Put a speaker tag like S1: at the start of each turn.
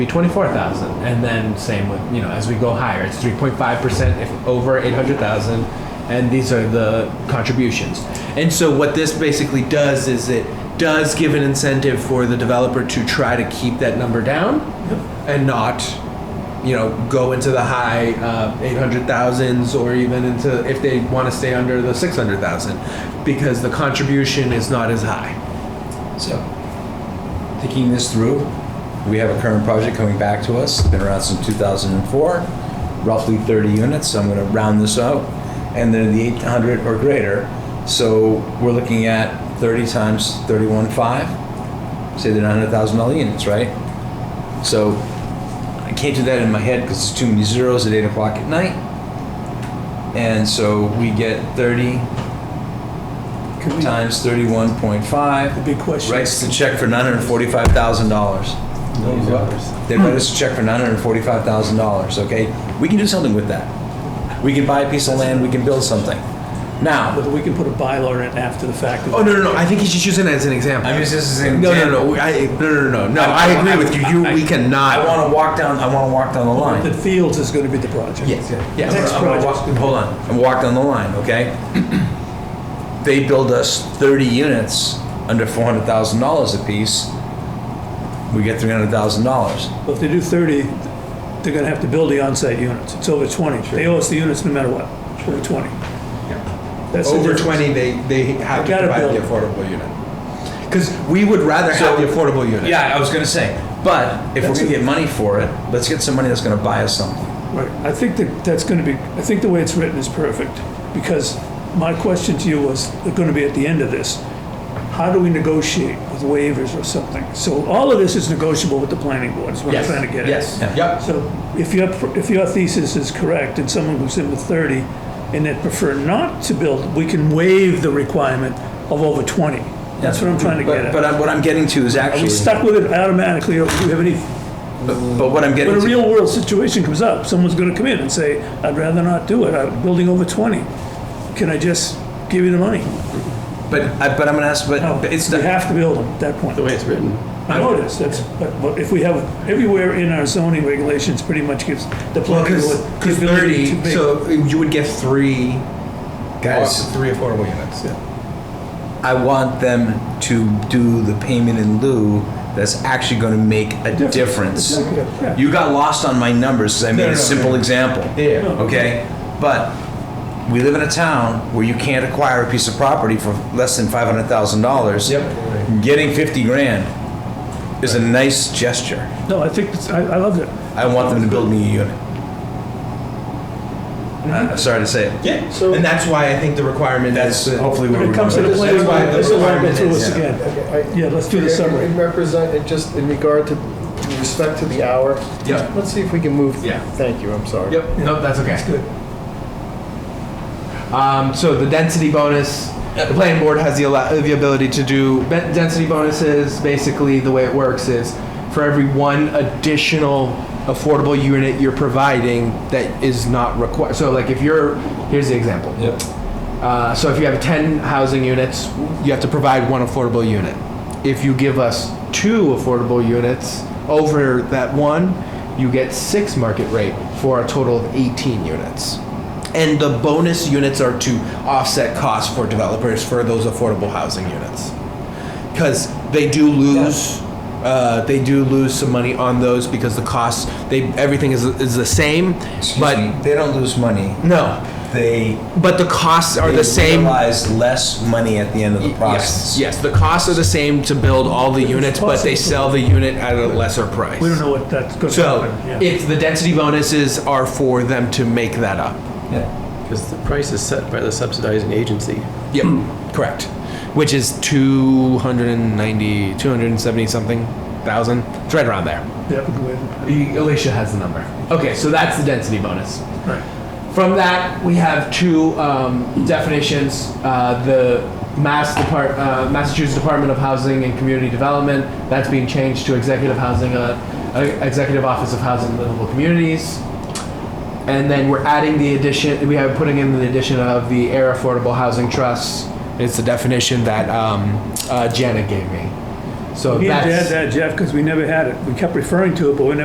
S1: be 24,000 and then same with you know as we go higher it's 3.5% if over 800,000 and these are the contributions
S2: And so what this basically does is it does give an incentive for the developer to try to keep that number down and not, you know, go into the high uh, 800,000s or even into if they want to stay under the 600,000 because the contribution is not as high.
S3: So, thinking this through, we have a current project coming back to us, been around since 2004, roughly 30 units, so I'm gonna round this out, and they're the 800 or greater, so we're looking at 30 times 31.5, say they're $900,000 units, right? So, I can't do that in my head because it's too many zeros at 8 o'clock at night, and so we get 30
S4: Could we-
S3: times 31.5,
S4: The big question.
S3: writes the check for nine hundred forty-five thousand dollars. They write us a check for nine hundred forty-five thousand dollars. Okay, we can do something with that. We can buy a piece of land. We can build something. Now,
S4: Whether we can put a bylaw in after the fact.
S2: Oh no no no! I think he's just using it as an example.
S3: I'm just this is an
S2: no, no,
S3: example.
S2: no, I, no, no, no, no. I
S3: I-
S2: agree with you. You, we cannot.
S3: I want to walk down. I want to walk down the line.
S4: The Fields is going to be the project.
S3: Yes, yeah. I'm
S4: Next
S3: gonna- I'm gonna walk-
S4: project.
S3: Hold on, I'm walking on the line, okay? They build us thirty units under four hundred thousand dollars apiece. We get three hundred thousand dollars.
S4: Well, if they do 30, they're going to have to build the onsite units. It's over 20. They owe us the units no matter what. It's over 20. That's the
S2: over
S4: difference.
S2: 20 they, they have to
S4: Gotta
S2: provide the
S4: build.
S2: affordable unit because we would rather have the affordable unit
S3: Yeah, I was gonna say. But if we're gonna get money for it, let's get some money that's gonna buy us something.
S4: Right, I think that that's going to be, I think the way it's written is perfect, because my question to you was, going to be at the end of this, how do we negotiate with waivers or something? So all of this is negotiable with the planning board, is what I'm
S2: yes
S4: trying to get at.
S2: yes
S3: Yeah.
S2: yep
S4: So if your, if your thesis is correct, and someone comes in with 30, and they prefer not to build, we can waive the requirement of over 20. That's what I'm trying to get
S3: But, but
S4: at.
S3: I'm- what I'm getting to is
S4: Are we
S3: actually,
S4: stuck with it automatically, or do you have any
S3: but what I'm
S4: when
S3: getting
S4: a
S3: to,
S4: real world situation comes up, someone's gonna come in and say, I'd rather not do it, I'm building over twenty. Can I just give you the money?
S3: but, I- but I'm gonna ask,
S4: No,
S3: but it's,
S4: we
S3: the-
S4: have to build them at that point.
S5: the way it's written.
S4: I know it is, that's, but, but if we have, everywhere in our zoning regulations pretty much gives the planning board
S2: because
S4: the ability to
S2: 30
S4: make.
S2: so you would get three
S3: guys,
S2: three affordable units yeah.
S3: I want them to do the payment in lieu that's actually gonna make a difference.
S4: Exactly, yeah.
S3: You got lost on my numbers, 'cause I made
S2: no,
S3: a
S2: no,
S3: simple
S2: no.
S3: example.
S2: yeah
S3: okay? But we live in a town where you can't acquire a piece of property for less than five hundred thousand dollars.
S2: Yep.
S3: Getting fifty grand is a nice gesture.
S4: No, I think, it's- I, I love it.
S3: I want them to build me a unit. I- I'm sorry to say it.
S2: Mm-hmm. yeah
S5: So-
S2: and that's why i think the requirement
S3: That's
S2: is
S3: hopefully where
S4: When
S3: we're
S4: it comes to the
S3: going.
S4: planning
S2: That's why
S4: board,
S2: the
S4: this is why I go
S2: requirement
S4: through
S2: is-
S4: this again.
S6: Okay, I-
S4: Yeah, let's do the
S6: in-
S4: summary.
S6: In represent, it just in regard to, in respect to the hour.
S2: Yeah.
S6: Let's see if we can move.
S2: Yeah.
S6: Thank you, I'm sorry.
S2: yep no that's okay that's good um, so the density bonus the planning board has the, ala- the ability to do ben- density bonuses basically the way it works is for every one additional affordable unit you're providing that is not required so like if you're here's the example uh, so if you have 10 housing units, you have to provide one affordable unit. If you give us two affordable units over that one, you get six market rate for a total of 18 units. And the bonus units are to offset costs for developers for those affordable housing units. Because they do lose, uh, they do lose some money on those because the costs, they, everything is, is the same.
S3: But
S2: but
S3: they don't lose money.
S2: no,
S3: They
S2: but the costs are
S3: they
S2: the same.
S3: Realize less money at the end of the
S2: Yes,
S3: process.
S2: yes, the costs are the same to build all the units, but they sell the unit at a lesser price.
S4: We don't know what that's gonna
S2: So,
S4: happen, yeah.
S2: it's, the density bonuses are for them to make that up.
S3: Yeah.
S5: Because the price is set by the subsidizing agency.
S2: Yep, correct. Which is 290, 270 something thousand, it's right around there.
S4: Yeah, we can waive
S2: Alicia has the number. Okay, so that's the density bonus.
S4: it. Right.
S2: From that, we have two um, definitions: uh, the Mass Depart- uh, Massachusetts Department of Housing and Community Development. That's being changed to Executive Housing, uh, uh, Executive Office of Housing and Livable Communities. And then we're adding the addition. We have putting in the addition of the Air Affordable Housing Trust. It's the definition that um, uh, Janet gave me. So
S4: We had to
S2: that's
S4: add that, Jeff, because we never had it. We kept referring to it, but we never